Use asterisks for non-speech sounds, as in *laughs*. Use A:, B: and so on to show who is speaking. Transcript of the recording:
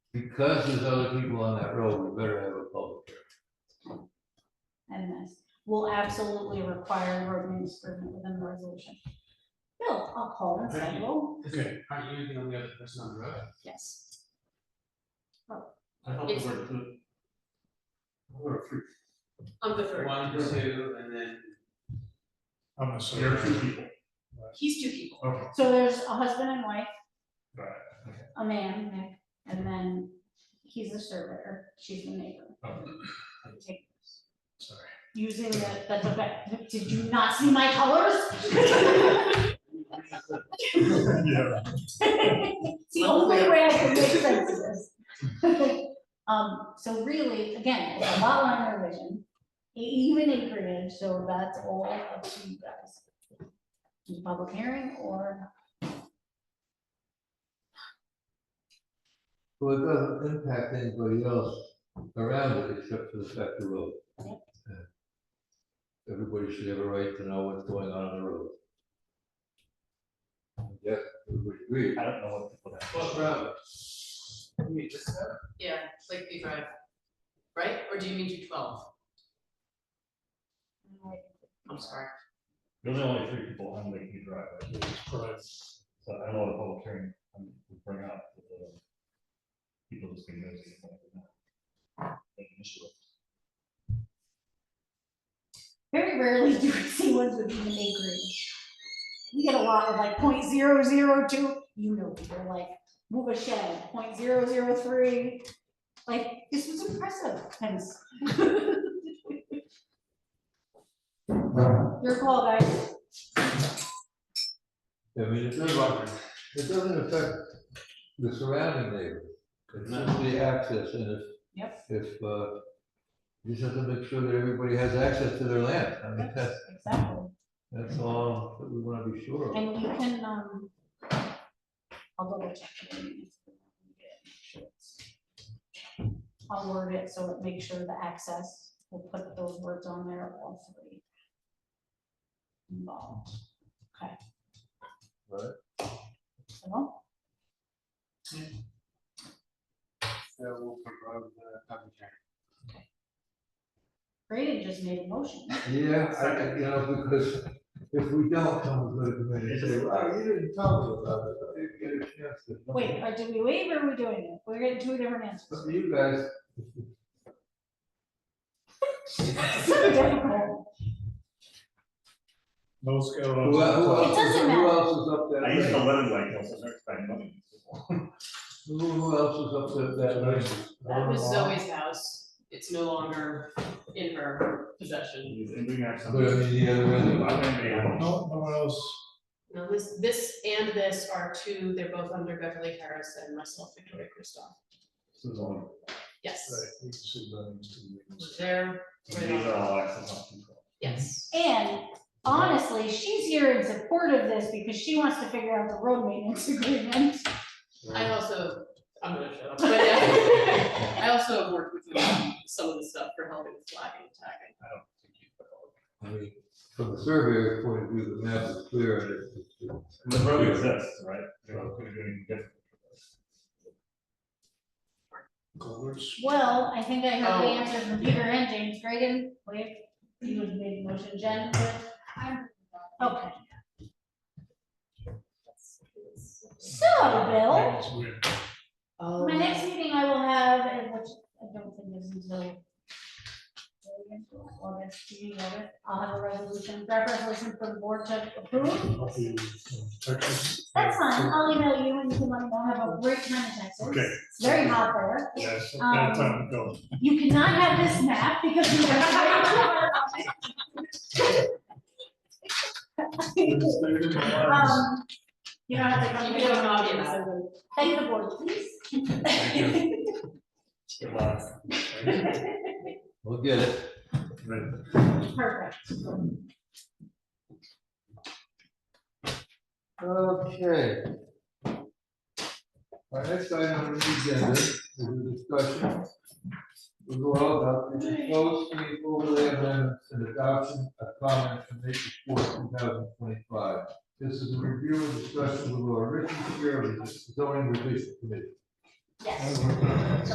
A: because there's other people on that road, we better have a public. hearing.
B: and this will absolutely require road improvement within the resolution. Bill, I'll call and say, well,
C: Okay. Aren't you the only other person on the road?
B: yes.
C: I thought
D: there It's- were
C: two. There were three.
D: on the third.
C: One, two, and then.
E: I'm assuming.
C: There are two people.
D: He's two people.
E: Okay,
B: So there's a husband and wife,
E: got it.
B: a man, Nick, and then he's the surveyor, she's the neighbor.
E: Okay,
B: Take-
E: Oh, sorry. *laughs*
B: Using that, that's okay, did you not see my colors? *laughs*
E: Yeah,
B: It's the only way I can make sense of this. *laughs* Um, so really, again, it's a lot line revision, e- even acreage, so that's all up to you guys. Do a Public hearing or,
A: So it doesn't impact anybody else around it except for the fact the road. Everybody should have a right to know what's going on on the road. Yeah, we agree.
E: I don't know what people have.
C: What road? You mean this road?
D: Yeah, Lakeview Drive, right? Or do you mean two twelve? I'm sorry.
F: There's only three people on Lakeview Drive, right? so I know the public hearing, um, we bring up with the uh, people just being nosy. and whatnot. Like an issue.
B: very rarely do we see ones with even acreage. We get a lot of like 0.002. you know, people like move a shed, 0.003. Like, this was impressive, hence. Your call, guys.
A: I mean, it doesn't, it doesn't affect the surrounding neighbor. It's just the access and if.
B: Yep.
A: If, uh, you just have to make sure that everybody has access to their land. I mean, that's,
B: Exactly,
A: that's all that we want to be sure of.
B: and you can, um, I'll double check. the meetings. I'll word it so it makes sure the access, we'll put those words on there, all three. Involved, okay.
A: Right.
B: So,
C: So we'll put road, uh, public hearing.
B: Braden just made a motion,
A: Yeah, I, I- you know, because if we don't come to the committee, say, well, you didn't tell us about it, I didn't get a chance to.
B: wait, are, did we waive or are we doing it? We're getting two different
A: But
B: answers.
A: you guys,
B: So difficult.
E: Most go.
A: who el- who else, is-
B: doesn't
A: who
B: matter.
A: else is up
F: I used
A: that
F: to
A: lane?
F: live in Lakeville, so I started spending money.
A: Who, who else is up that, that lane?
D: That was Zoe's house. It's no longer in her possession.
F: And bring out some.
A: But I mean, the other end of it.
E: No, no one else.
D: Now, this, this and this are two, they're both under Beverly Harris and myself, Victoria Kristoff.
F: This is all,
D: Yes,
E: Right, you can see that it's two vehicles.
D: they're,
F: these are all access on control.
D: yes.
B: And honestly, she's here in support of this because she wants to figure out the road maintenance agreement.
D: I also, I'm gonna *laughs* shut up, but yeah, I also have worked with them on some of the stuff for helping with flagging and tagging.
F: I don't think you put all.
A: I mean, from the surveyor's point of view, the map is clear and it's- it's.
F: And The road exists, right? They're not gonna do anything different.
E: Culverts.
B: Well, I think I heard the
D: Oh.
B: answer from Peter and James Reagan, wait, you would make the motion, Jen, okay. So, Bill,
E: It's weird.
D: Oh.
B: my next meeting I will have, and which I don't think is until August, do you have it? I'll have a resolution, draft resolution for the board to approve.
E: Up in, um, Texas.
B: That's fine, I'll email you and you can let me know, have a great time in Texas.
E: Okay.
B: It's very hot
F: *laughs*
B: there.
E: Yes,
B: *laughs* Um,
E: bad time to go.
B: You cannot have this map because you have.
F: *laughs*
B: Um, You don't have to come.
D: You can have an audience.
B: Thank the board, please.
E: Thank
F: Good luck.
B: *laughs*
A: We'll get it.
B: Perfect.
A: Okay. Our next item on the agenda is a discussion. We go all about the proposed street overlay amendments and adoption of comments from April fourth, two thousand twenty-five. This is a review and discussion with our written chair of the zoning revision committee.
B: Yes.